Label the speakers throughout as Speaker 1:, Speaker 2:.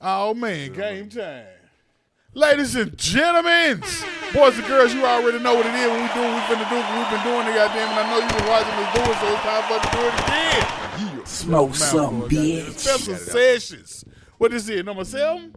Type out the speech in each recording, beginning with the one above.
Speaker 1: Oh man, game time. Ladies and gentlemen, boys and girls, you already know what it is. When we do what we finna do, what we've been doing it, goddamn, and I know you've been watching us do it, so it's time for us to do it again.
Speaker 2: Smoke some,
Speaker 1: Mouthful, goddamn.
Speaker 2: bitch.
Speaker 1: Special sessions. What is it, number seven?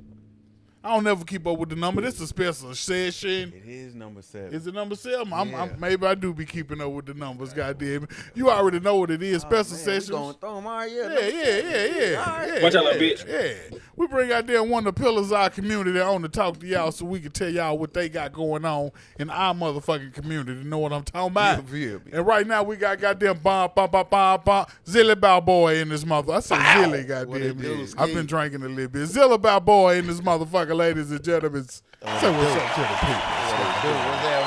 Speaker 1: I don't never keep up with the number. This is a special session.
Speaker 3: It is number seven.
Speaker 1: Is it number seven? I'm,
Speaker 3: Yeah.
Speaker 1: I'm, maybe I do be keeping up with the numbers, goddamn. it. You already know what it is. Special
Speaker 3: Oh, Man, we
Speaker 1: sessions.
Speaker 3: gonna throw 'em all year.
Speaker 1: Yeah, yeah, yeah, yeah. yeah
Speaker 4: Watch out,
Speaker 1: yeah,
Speaker 4: little bitch.
Speaker 1: Yeah. We bring out there one of the pillars of our community that on to talk to y'all so we can tell y'all what they got going on in our motherfucking community. Know what I'm talking about?
Speaker 3: Yeah, yeah, yeah.
Speaker 1: And right now we got goddamn bomb, bomb, bomb, bomb, bomb, Zilly Balboa in this mother. I said Zilly,
Speaker 3: What it
Speaker 1: goddamn.
Speaker 3: do,
Speaker 1: it.
Speaker 3: Ski?
Speaker 1: I've been drinking a little bit. Zilly Balboa in this motherfucker, ladies and gentlemen. Say
Speaker 3: Uh,
Speaker 1: what's up to the people.
Speaker 3: Dude, what's that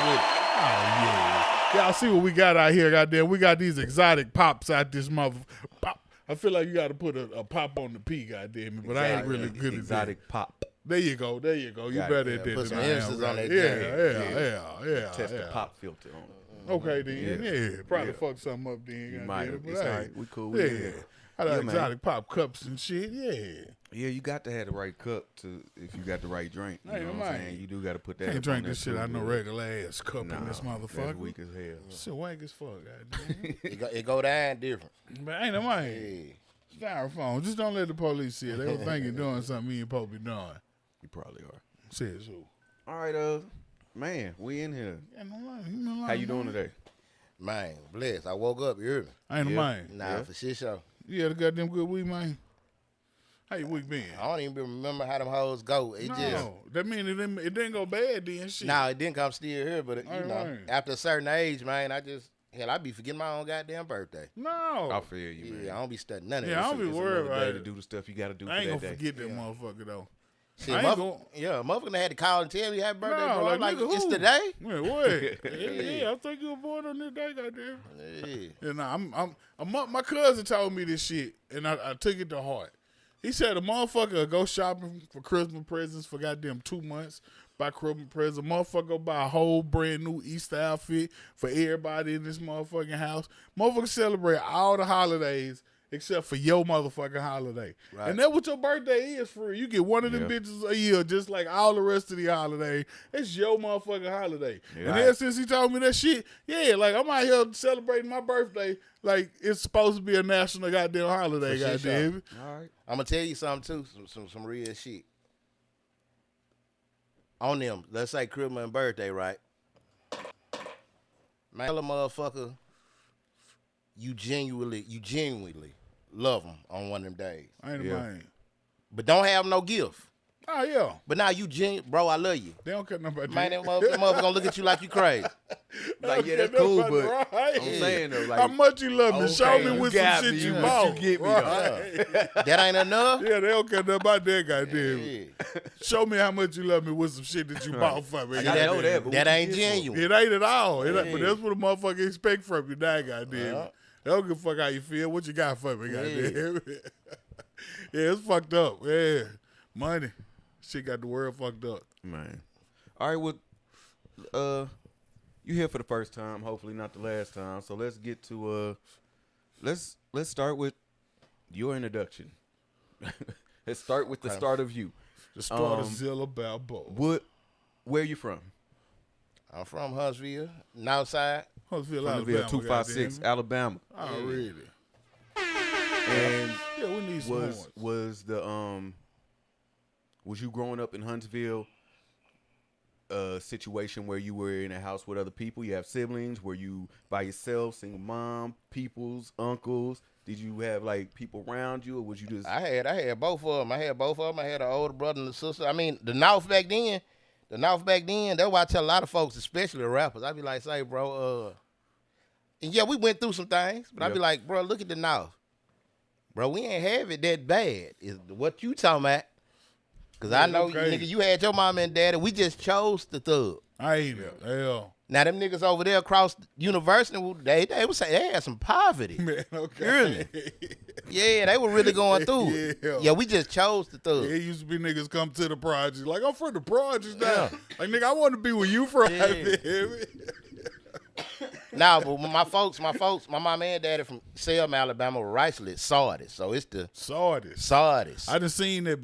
Speaker 1: Oh yeah. Y'all see what we got out here, goddamn. We got these exotic pops out this mother. Pop. I feel like you got to put a, a pop on the P, goddamn it. But
Speaker 3: with?
Speaker 1: I ain't really good
Speaker 3: Exotic
Speaker 1: at
Speaker 3: pop.
Speaker 1: that. There you go. There you go. You
Speaker 3: Got it,
Speaker 1: better
Speaker 3: yeah.
Speaker 1: at that
Speaker 3: Put
Speaker 1: than
Speaker 3: some
Speaker 1: I am,
Speaker 3: emphasis on
Speaker 1: right?
Speaker 3: that
Speaker 1: Yeah,
Speaker 3: thing.
Speaker 1: yeah, yeah, yeah.
Speaker 3: Test
Speaker 1: Oh, yeah.
Speaker 3: the pop filter on it.
Speaker 1: Okay then. Yeah,
Speaker 3: Yeah.
Speaker 1: probably
Speaker 3: Yeah.
Speaker 1: fuck something up then.
Speaker 3: You
Speaker 1: goddamn
Speaker 3: might
Speaker 1: it,
Speaker 3: have.
Speaker 1: but
Speaker 3: It's
Speaker 1: hey,
Speaker 3: all right. We cool. We
Speaker 1: Yeah.
Speaker 3: good.
Speaker 1: I got
Speaker 3: Yeah, man.
Speaker 1: exotic pop cups and shit. Yeah.
Speaker 3: Yeah, you got to have the right cup to if you got the right drink. You
Speaker 1: Hey,
Speaker 3: know what
Speaker 1: man.
Speaker 3: I'm saying? You do got to put that.
Speaker 1: Can't
Speaker 3: up on
Speaker 1: drink
Speaker 3: that
Speaker 1: this shit
Speaker 3: too,
Speaker 1: out no
Speaker 3: dude.
Speaker 1: regular ass cup
Speaker 3: Nah,
Speaker 1: in this
Speaker 3: That's
Speaker 1: motherfucker.
Speaker 3: weak as hell.
Speaker 1: Shit wank as fuck, goddamn.
Speaker 2: It go, it go down different.
Speaker 1: but ain't no mind.
Speaker 2: Yeah.
Speaker 1: Styrofoam. Just don't let the police see it. They don't think you're doing something you ain't supposed to be doing.
Speaker 3: You probably are.
Speaker 1: Says who?
Speaker 3: All right, uh, man, we in here.
Speaker 1: Ain't no lie. Ain't no lie.
Speaker 3: How you doing today?
Speaker 2: Man, bless. I woke up early.
Speaker 1: Ain't no
Speaker 3: Yeah.
Speaker 1: mind.
Speaker 2: Nah,
Speaker 3: Yeah.
Speaker 2: for shit show.
Speaker 1: You had a goddamn good week, man. How your week been?
Speaker 3: Oh,
Speaker 2: I don't even remember how them hoes go. It
Speaker 1: No,
Speaker 2: just
Speaker 1: that mean it didn't, it didn't go bad then. Shit.
Speaker 2: No, it didn't come still here, but it, you
Speaker 1: All
Speaker 2: know,
Speaker 1: right.
Speaker 2: after a certain age, man, I just hell, I be forgetting my own goddamn birthday.
Speaker 3: I
Speaker 1: no.
Speaker 3: feel you, man.
Speaker 2: Yeah, I don't be studying none of
Speaker 1: Oh. Yeah, I
Speaker 2: that
Speaker 1: don't
Speaker 2: shit.
Speaker 1: be
Speaker 3: It's
Speaker 1: worried
Speaker 3: another
Speaker 1: about
Speaker 3: day
Speaker 1: it.
Speaker 3: to do the stuff you got to do
Speaker 1: I ain't
Speaker 3: for
Speaker 1: gonna
Speaker 3: that day.
Speaker 1: forget that motherfucker though.
Speaker 2: Shit,
Speaker 1: I ain't
Speaker 2: motherf-
Speaker 1: gon-
Speaker 2: yeah, motherfucker had to call and tell me happy birthday,
Speaker 1: no,
Speaker 2: bro. I'm like,
Speaker 1: nigga,
Speaker 2: it's
Speaker 1: who?
Speaker 2: today.
Speaker 1: Man, what? yeah, yeah, I think you were born on this day, goddamn.
Speaker 2: Yeah.
Speaker 1: And I'm, I'm, a mo- my cousin told me this shit, and I, I took it to heart. He said a motherfucker will go shopping for Christmas presents for goddamn two months. Buy Christmas presents, a motherfucker go buy a whole brand new Easter outfit for everybody in this motherfucking house. Motherfucker celebrate all the holidays except for your motherfucking holiday. And that's what your birthday is for. You get one of them
Speaker 3: Yeah.
Speaker 1: bitches a year, just like all the rest of the holiday. It's your motherfucking holiday. And
Speaker 3: Right.
Speaker 1: then since he told me that shit, yeah, like I'm out here celebrating my birthday. Like it's supposed to be a national goddamn holiday,
Speaker 2: For sure,
Speaker 1: goddamn. it.
Speaker 3: All right.
Speaker 2: I'm gonna tell you something too, some some, some real shit. On them, let's say Christmas and birthday, right? Man, tell a motherfucker, you genuinely, you genuinely love them on one of them days,
Speaker 1: Ain't
Speaker 3: Yeah.
Speaker 1: a mind.
Speaker 2: but don't have no gift.
Speaker 1: Oh yeah,
Speaker 2: But now you genu- bro, I love you.
Speaker 1: they don't care nothing about
Speaker 2: Man,
Speaker 1: that.
Speaker 2: that mother- that motherfucker gonna look at you like you crazy.
Speaker 3: Like, yeah, that's
Speaker 1: They don't
Speaker 3: cool,
Speaker 1: care nothing
Speaker 3: but
Speaker 1: about right.
Speaker 3: I'm saying though,
Speaker 1: how
Speaker 3: like,
Speaker 1: much you love me? Show
Speaker 3: okay,
Speaker 1: me
Speaker 3: you
Speaker 1: with some
Speaker 3: got
Speaker 1: shit
Speaker 3: me,
Speaker 1: you
Speaker 3: but
Speaker 1: bought.
Speaker 3: you get me,
Speaker 1: right?
Speaker 2: That ain't enough.
Speaker 1: Yeah, they don't care nothing about that, goddamn.
Speaker 2: Yeah.
Speaker 1: Show me how much you love me with some shit that you bought for me.
Speaker 3: I know
Speaker 1: goddamn.
Speaker 3: that, but
Speaker 2: That
Speaker 3: what you
Speaker 2: ain't
Speaker 3: get for it?
Speaker 2: genuine.
Speaker 1: It ain't at all. It ain't, but that's what a motherfucker expect from you now, goddamn.
Speaker 2: Yeah.
Speaker 1: They don't give a fuck how you feel. What you got for me, goddamn. Yeah, it's fucked up. Yeah. Money. Shit got the world fucked up.
Speaker 3: Man. All right, well, uh, you here for the first time, hopefully not the last time. So let's get to uh, let's let's start with your introduction. let's start with the start of you.
Speaker 1: The start of
Speaker 3: Um,
Speaker 1: Zilla Balboa.
Speaker 3: What? Where you from?
Speaker 2: I'm from Huntsville, Northside.
Speaker 1: Huntsville,
Speaker 3: Huntsville,
Speaker 1: Alabama.
Speaker 3: two five six,
Speaker 1: goddamn.
Speaker 3: Alabama.
Speaker 1: Already.
Speaker 3: And
Speaker 1: Yeah, we need some
Speaker 3: was
Speaker 1: horns.
Speaker 3: was the um was you growing up in Huntsville a situation where you were in a house with other people? You have siblings? Were you by yourself, single mom, peoples, uncles? Did you have like people around you or was you just
Speaker 2: I had I had both of them. I had both of them. I had an older brother and a sister. I mean, the North back then, the North back then. That's why I tell a lot of folks, especially rappers, I be like, say, bro, uh, and yeah, we went through some things, but I be
Speaker 3: Yeah.
Speaker 2: like, bro, look at the North, bro. We ain't have it that bad. Is what you talking about? Cause I
Speaker 1: Yeah,
Speaker 2: know,
Speaker 1: okay.
Speaker 2: nigga, you had your mom and daddy. We just chose the thug.
Speaker 1: I ain't it. Hell.
Speaker 2: Now them niggas over there across university, they they was say they had some poverty.
Speaker 1: Man, okay.
Speaker 2: Really? Yeah, they were really going through. it.
Speaker 1: Yeah.
Speaker 2: yeah, we just chose the thug.
Speaker 1: Yeah, it used to be niggas come to the projects. Like, I'm from the projects now. Like, nigga, I want to be where you from.
Speaker 2: Nah, but when my folks, my folks, my mom and daddy from Selma, Alabama, were Ricelet, Sardis. So it's the
Speaker 1: Saw this.
Speaker 2: Sardis.
Speaker 1: I done seen that